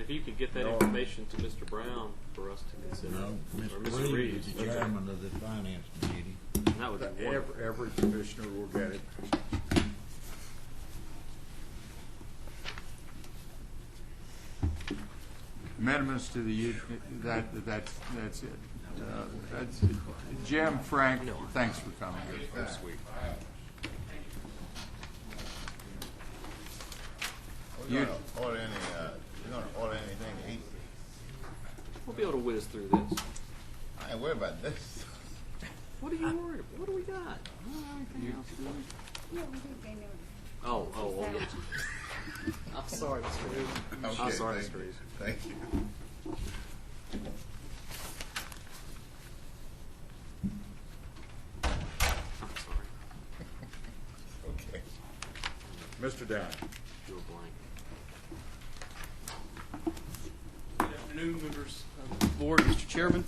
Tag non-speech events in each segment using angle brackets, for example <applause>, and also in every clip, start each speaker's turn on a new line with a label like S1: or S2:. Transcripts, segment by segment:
S1: if you could get that
S2: No.
S1: information to Mr. Brown for us to consider,
S3: No,
S1: or
S3: Mr.
S1: Mr.
S3: Reed
S1: Reeves,
S3: is the
S1: okay.
S3: chairman of the finance committee.
S1: that would be wonderful.
S2: Every, every commissioner will get it.
S4: Amendments to the, u- that, that's, that's it. Uh, that's it. Jim, Frank, thanks for coming here this week.
S5: We're
S4: You-
S5: gonna order any, uh, we're gonna order anything to eat.
S1: We'll be able to whiz through this.
S5: I ain't worried about this. <laughs>
S1: What are you worried about? What do we got?
S6: No, we didn't say no.
S1: Oh, oh, oh. yeah. I'm sorry, Mr. Reeves.
S5: Okay,
S1: sorry,
S5: thank
S1: Mr.
S5: you.
S1: Reeves.
S5: Thank you.
S1: I'm sorry.
S5: Okay.
S2: Mr. Down.
S1: Drew a blank.
S7: Good afternoon, members of the board, Mr. Chairman.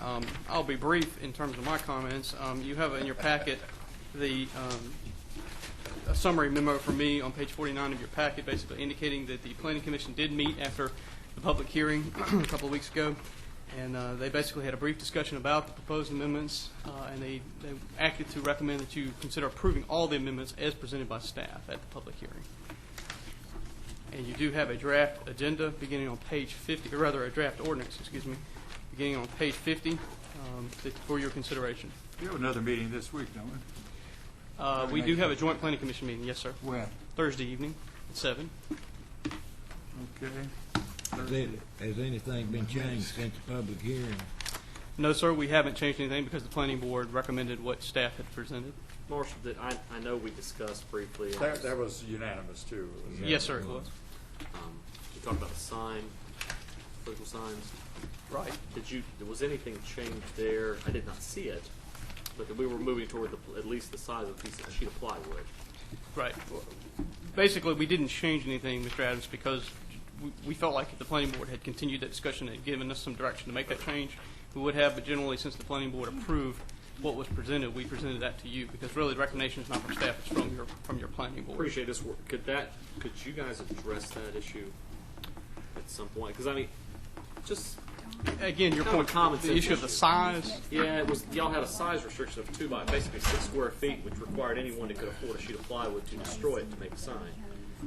S7: Um, I'll be brief in terms of my comments. Um, You have in your packet the um, a summary memo from me on page 49 of your packet, basically indicating that the Planning Commission did meet after the public hearing <clears throat> a couple of weeks ago, and uh, they basically had a brief discussion about the proposed amendments, uh, and they they acted to recommend that you consider approving all the amendments as presented by staff at the public hearing. And you do have a draft agenda beginning on page 50, or rather, a draft ordinance, excuse me, beginning on page 50 um, that- for your consideration.
S4: We have another meeting this week, don't we?
S7: Uh, We do have a joint planning commission meeting, yes, sir,
S4: When?
S7: Thursday evening at 7.
S4: Okay.
S3: Has it- Has anything been changed since the public hearing?
S7: No, sir, we haven't changed anything because the planning board recommended what staff had presented.
S1: Marshall, did, I, I know we discussed briefly, um,
S2: That, that was unanimous too.
S3: Yeah,
S7: Yes, sir,
S3: it
S7: it
S3: was.
S7: was.
S1: we talked about the sign, political signs.
S7: Right.
S1: Did you, was anything changed there? I did not see it, but that we were moving toward the, at least the size of a piece of sheet of plywood.
S7: Right. Basically, we didn't change anything, Mr. Adams, because we- we felt like if the planning board had continued that discussion and given us some direction to make that change, we would have, but generally, since the planning board approved what was presented, we presented that to you, because really, the recommendation is not from staff, it's from your, from your planning board.
S1: Appreciate this work. Could that, could you guys address that issue at some point? Because I mean, just,
S7: Again, your
S1: Kind of a
S7: point,
S1: common
S7: the
S1: sense
S7: issue of the
S1: issue.
S7: size,
S1: yeah, it was, y'all had a size restriction of two by, basically six square feet, which required anyone that could afford a sheet of plywood to destroy it to make a sign.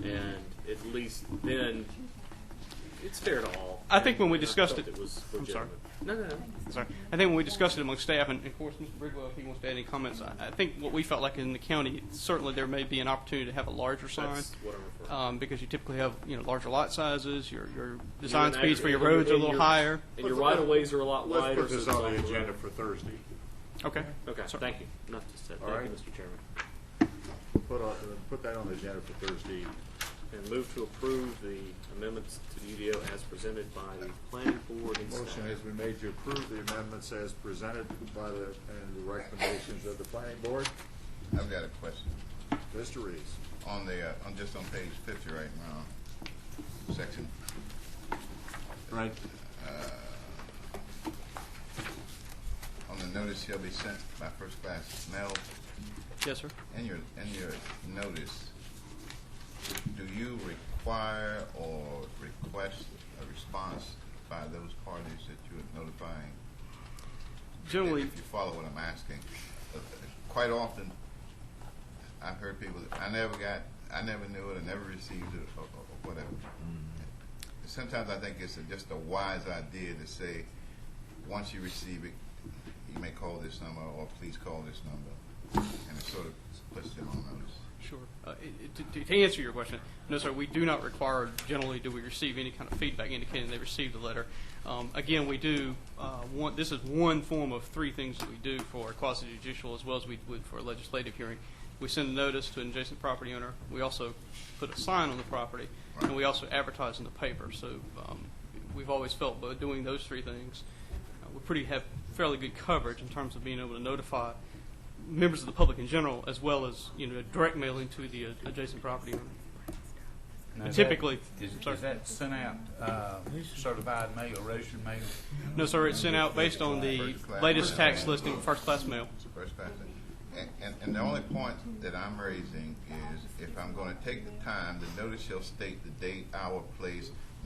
S1: And at least then, it's fair to all.
S7: I think when we
S1: And I
S7: discussed
S1: felt
S7: it-
S1: It was
S7: I'm sorry.
S1: legitimate. No, no, no.
S7: Sorry. I think when we discussed it among staff, and of course, Mr. Bridwell, if he wants to add any comments, I, I think what we felt like in the county, certainly there may be an opportunity to have a larger sign.
S1: That's what I'm referring to.
S7: Um, because you typically have, you know, larger lot sizes, your, your
S1: You're
S7: design
S1: an
S7: speeds for your
S1: aggregate-
S7: roads are a
S1: and
S7: little
S1: your-
S7: higher.
S1: And your right of ways are a lot
S2: Let's
S1: wider.
S2: put this
S1: so it's
S2: on the
S1: all-
S2: agenda for Thursday.
S7: Okay.
S1: Okay,
S7: Sorry.
S1: thank you. Enough to say. Thank you,
S2: right.
S1: Mr. Chairman.
S2: Put on, put that on the agenda for Thursday.
S1: And move to approve the amendments to the UDO as presented by the planning board and staff.
S2: Motion has been made to approve the amendments as presented by the, and the recommendations of the planning board.
S5: I've got a question.
S2: Mr. Reeves.
S5: On the, uh, I'm just on page fifty right now, section,
S4: Right.
S5: on the notice shall be sent by first class mail.
S7: Yes, sir.
S5: In your, in your notice, do you require or request a response by those parties that you're notifying?
S7: Generally,
S5: If you follow what I'm asking, uh, quite often, I've heard people, that, I never got, I never knew it, I never received it, or, or- or whatever. Sometimes I think it's a- just a wise idea to say, once you receive it, you may call this number, or please call this number, and it sort of puts them on notice.
S7: sure. Uh, it- it- to, to answer your question, no, sir, we do not require, generally, do we receive any kind of feedback indicating they received the letter. Um, again, we do, uh, one, this is one form of three things that we do for a quasi judicial as well as we would for a legislative hearing. We send a notice to an adjacent property owner. We also put a sign on the property, and we also advertise in the paper. So um, we've always felt by doing those three things, uh, we pretty have fairly good coverage in terms of being able to notify members of the public in general, as well as you know direct mailing to the uh, adjacent property owner.
S8: Now, is that-
S7: Typically,
S8: Is,
S7: sorry.
S8: is that sent out, uh, certified mail, roasted mail?
S7: no, sir, it's sent out based on the
S5: First class.
S7: latest tax listing, first class mail.
S5: First class. And, and, and the only point that I'm raising is if I'm gonna take the time, the notice shall state the date, hour, place,